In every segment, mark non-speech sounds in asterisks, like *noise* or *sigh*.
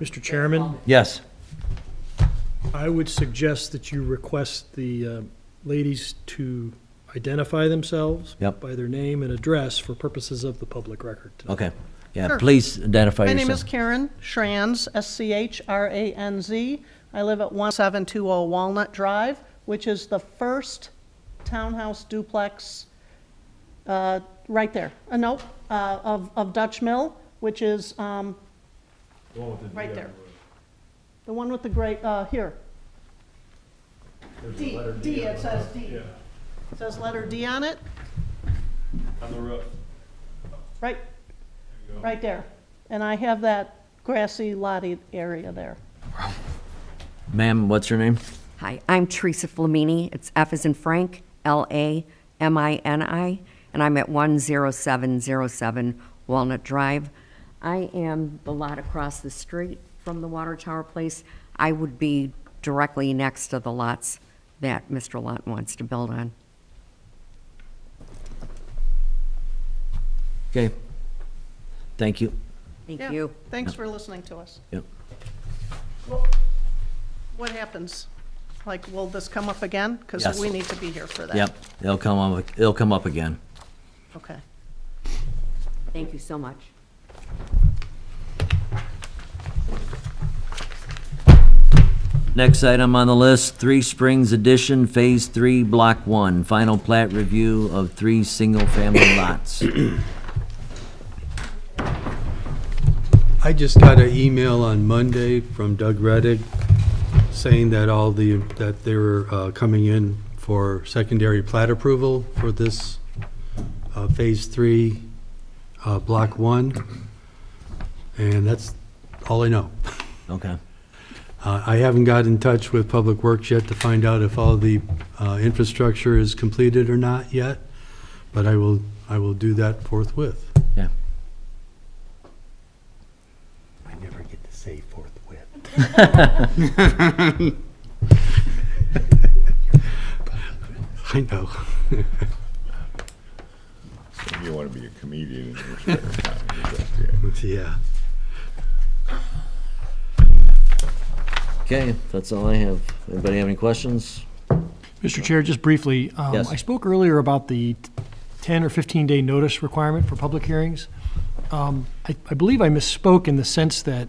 Mr. Chairman, Yes. I would suggest that you request the uh, ladies to identify themselves Yep. by their name and address for purposes of the public record. tonight. Okay. Yeah, Sure. please identify My yourself. name is Karen Schranz, S-C-H-R-A-N-Z. I live at 1720 Walnut Drive, which is the first townhouse duplex, uh, right there, uh, nope, uh, of, of Dutch Mill, which is, um, right there. The one with the great, uh, here. D, D, it says D. It Says letter D on it, On the roof. right, right there. And I have that grassy lotty area there. Ma'am, what's your name? Hi, I'm Teresa Flamini. It's F as in Frank, L A M I N I, and I'm at 10707 Walnut Drive. I am the lot across the street from the Water Tower Place. I would be directly next to the lots that Mr. Lot wants to build on. Okay. Thank you. Thank Yeah, you. Thanks for listening to us. Yep. What happens? Like, will this come up again? Because Yes. we need to be here for that. Yep. It'll come up, it'll come up again. Okay. Thank you so much. Next item on the list, Three Springs Edition, Phase Three, Block One, final plat review of three single-family *coughs* lots. I just got an email on Monday from Doug Reddick saying that all the, that they were uh, coming in for secondary plat approval for this uh, Phase 3, uh, Block 1, and that's all I know. Okay. Uh, I haven't got in touch with Public Works yet to find out if all the uh, infrastructure is completed or not yet, but I will, I will do that forthwith. Yeah. I never get to say forthwith. *laughs* I know. You want to be a comedian in your spare time. you just, yeah. *laughs* Yeah. Okay, that's all I have. Anybody have any questions? Mr. Chair, just briefly, um, Yes. I spoke earlier about the 10 or 15-day notice requirement for public hearings. Um, I I believe I misspoke in the sense that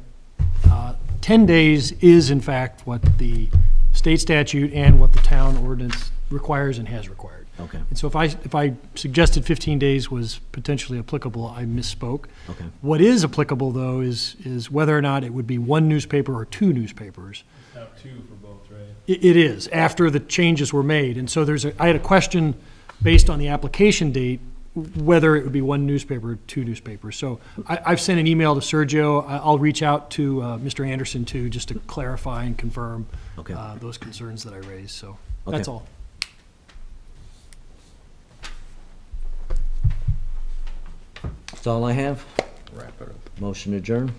uh, 10 days is in fact what the state statute and what the town ordinance requires and has required. Okay. And so if I, if I suggested 15 days was potentially applicable, I misspoke. Okay. What is applicable, though, is, is whether or not it would be one newspaper or two newspapers. Not two for both, right? It, it is, after the changes were made. And so there's, a I had a question based on the application date, whether it would be one newspaper or two newspapers. So I, I've sent an email to Sergio. I- I'll reach out to uh, Mr. Anderson, too, just to clarify and confirm Okay. uh, those concerns that I raised. So that's Okay. all. That's all I have. Wrap it up. Motion adjourned.